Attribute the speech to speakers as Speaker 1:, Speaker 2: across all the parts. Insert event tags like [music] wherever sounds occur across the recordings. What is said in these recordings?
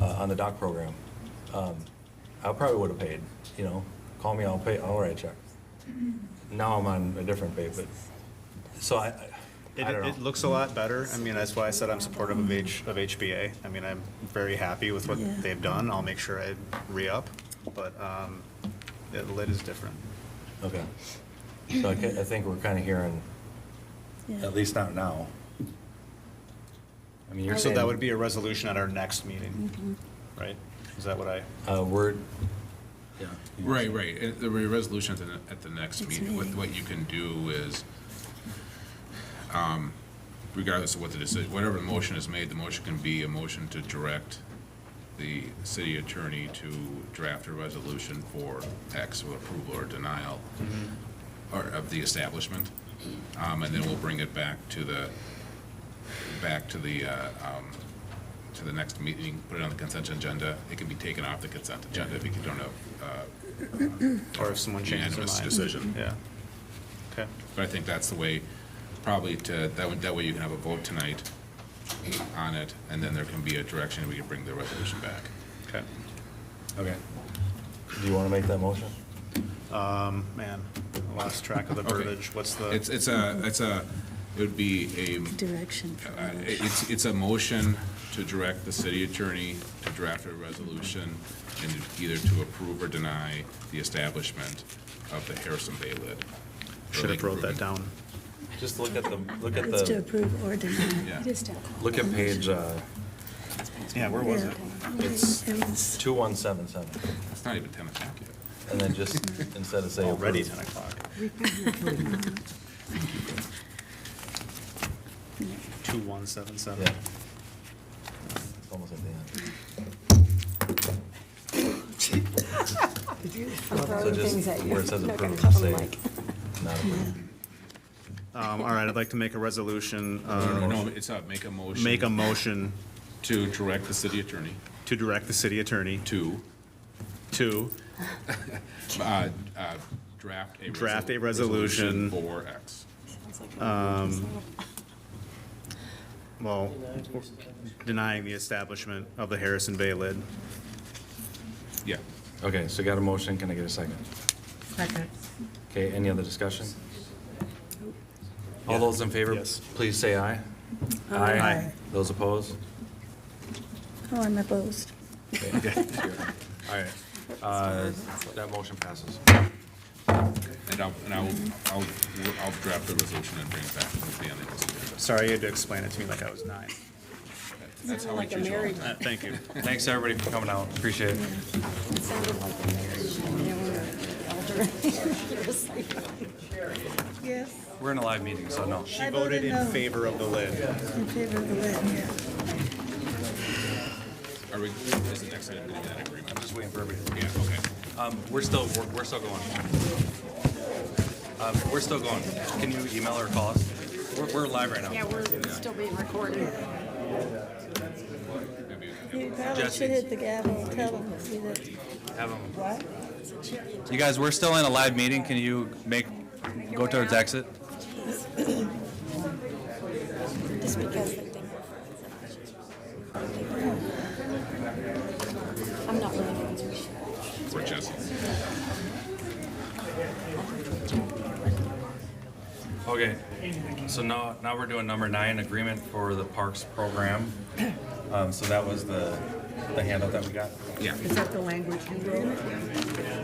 Speaker 1: uh, on the doc program. Um, I probably would have paid, you know, call me, I'll pay, I'll write a check. Now I'm on a different pay, but, so I, I
Speaker 2: It,
Speaker 1: I don't know.
Speaker 2: it looks a lot better. I mean, that's why I said I'm supportive of H, of HBA. I mean, I'm very happy with what
Speaker 3: Yeah.
Speaker 2: they've done. I'll make sure I re-up, but, um, it, lit is different.
Speaker 1: Okay. So I ca- I think we're kind of hearing,
Speaker 3: Yeah.
Speaker 4: At least not now.
Speaker 1: I mean, you're
Speaker 2: So
Speaker 1: saying.
Speaker 2: that would be a resolution at our next meeting, right? Is that what I,
Speaker 1: Uh, word,
Speaker 4: Yeah.
Speaker 5: Right, right. And There'll be a resolution at the, ne- at the next
Speaker 3: Next
Speaker 5: meeting. What,
Speaker 3: meeting.
Speaker 5: what you can do is, um, regardless of what the decision, whatever the motion is made, the motion can be a motion to direct the city attorney to draft a resolution for X with approval or denial or of the establishment. Um, and then we'll bring it back to the, back to the, uh, um, to the next meeting, put it on the consent agenda. It can be taken off the consent agenda if you don't have, uh,
Speaker 2: or if someone changes their
Speaker 5: Unanimous
Speaker 2: mind?
Speaker 5: decision.
Speaker 2: Yeah. Okay.
Speaker 5: But I think that's the way, probably to, that way, that way you can have a vote tonight on it, and then there can be a direction, we can bring the resolution back.
Speaker 2: Okay.
Speaker 4: Okay.
Speaker 1: do you want to make that motion?
Speaker 2: Um, man, I lost track of the
Speaker 5: Okay.
Speaker 2: verbiage. What's the?
Speaker 5: It's, it's a, it's a, it would be
Speaker 3: Direction. for
Speaker 5: a, uh,
Speaker 3: motion.
Speaker 5: it's, it's a motion to direct the city attorney to draft a resolution and either to approve or deny the establishment of the Harrison Bay lid.
Speaker 2: Should have wrote that down.
Speaker 1: Just look at the, look at
Speaker 3: It's to
Speaker 1: the,
Speaker 3: approve or deny.
Speaker 5: Yeah.
Speaker 1: look at page uh,
Speaker 2: Yeah, where was it?
Speaker 1: It's-
Speaker 3: It was
Speaker 1: 2177,
Speaker 5: It's not even ten o'clock yet.
Speaker 1: and then just, instead of saying.
Speaker 2: Already
Speaker 1: approved,
Speaker 2: 10 o'clock. 2177.
Speaker 1: Yeah. It's almost at the end.
Speaker 6: I'm
Speaker 1: So
Speaker 6: throwing things
Speaker 1: just
Speaker 6: at you.
Speaker 1: where it says
Speaker 6: [laughs] I'm not gonna
Speaker 1: approved,
Speaker 6: cut 'em
Speaker 1: say,
Speaker 6: like- [laughs]
Speaker 1: not approved.
Speaker 2: Um, all right, I'd like to make a resolution,
Speaker 5: No,
Speaker 2: uh,
Speaker 5: no, it's a, make a motion.
Speaker 2: make a motion
Speaker 5: To direct the city attorney
Speaker 2: to direct the city attorney
Speaker 5: to
Speaker 2: to
Speaker 5: uh, uh, draft a.
Speaker 2: Draft a
Speaker 5: resolu-
Speaker 2: resolution.
Speaker 5: For X.
Speaker 2: Well, denying the establishment of the Harrison Bay lid.
Speaker 5: Yeah.
Speaker 1: Okay, so got a motion, can I get a second?
Speaker 7: Second.
Speaker 1: Okay, any other discussion? All those in favor,
Speaker 2: Yes.
Speaker 1: please say aye.
Speaker 2: Aye.
Speaker 1: Those opposed?
Speaker 3: Oh, I'm opposed.
Speaker 1: All right, uh, that motion passes.
Speaker 5: And I'll, and I'll, I'll, I'll draft the resolution and bring it back to the end of this agenda.
Speaker 2: Sorry, you had to explain it to me like I was nine.
Speaker 5: That's how we choose all the time.
Speaker 2: Uh, Thank you.
Speaker 4: Thanks, everybody, for coming out. Appreciate it.
Speaker 6: It sounded like a marriage. They [laughs] were elder. It was like-
Speaker 3: Yes.
Speaker 4: We're in a live meeting, so no.
Speaker 2: She voted in favor of the lid.
Speaker 3: In favor of the lid, yeah.
Speaker 5: Are we, is the next item going to be that agreement?
Speaker 4: Just waiting for everybody.
Speaker 5: Yeah, okay.
Speaker 4: Um, we're still, we're, we're still going. Um, we're still going. Can you email or call us? We're, we're live right now.
Speaker 6: Yeah, we're still being recorded.
Speaker 3: You probably should hit the gavel and tell them that we did.
Speaker 4: Have 'em-
Speaker 3: What?
Speaker 4: You guys, we're still in a live meeting. Can you make, go towards exit?
Speaker 6: Just because they think we're friends. I'm not sure. I'm not really friends with you.
Speaker 5: For Jesse.
Speaker 4: Okay, so now, now we're doing number nine, agreement for the parks program. Um, so that was the, the handout that we got.
Speaker 5: Yeah.
Speaker 7: Is that the language you wrote?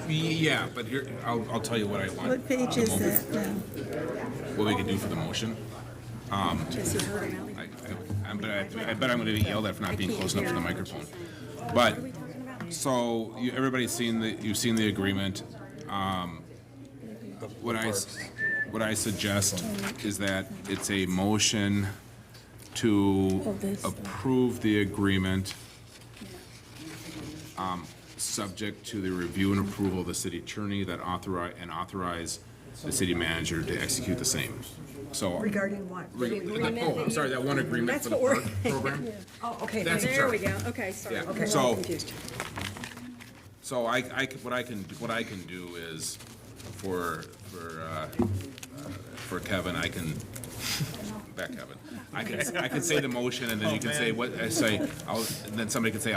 Speaker 5: Yeah, but here, I'll, I'll tell you what I want.
Speaker 3: What page
Speaker 5: the
Speaker 3: is
Speaker 5: mo-
Speaker 3: that now?
Speaker 5: What we can do for the motion. Um,
Speaker 6: Jesse Hurd and Ally.
Speaker 5: I, I, but I, I bet I'm going to be yelled at for not being close enough to the microphone. But, so, you, everybody's seen the, you've seen the agreement. Um, What I, s- what I suggest is that it's a motion to approve the agreement, um, subject to the review and approval of the city attorney that authorize, and authorize the city manager to execute the same. So,
Speaker 7: Regarding what?
Speaker 5: Re- the- Oh, I'm sorry, that one agreement
Speaker 7: That's
Speaker 5: for the
Speaker 7: what we're-
Speaker 5: park
Speaker 7: [laughs]
Speaker 5: program?
Speaker 7: Oh, okay.
Speaker 5: That's
Speaker 7: thank you.
Speaker 5: absurd.
Speaker 6: Okay, sorry.
Speaker 5: Yeah,
Speaker 7: Okay,
Speaker 5: so,
Speaker 7: confused.
Speaker 5: so I, I, c- what I can, what I can do is, for, for, uh, uh, for Kevin, I can, back Kevin, I can, I can say the motion, and then you can say what, I say, I'll, and then somebody can say,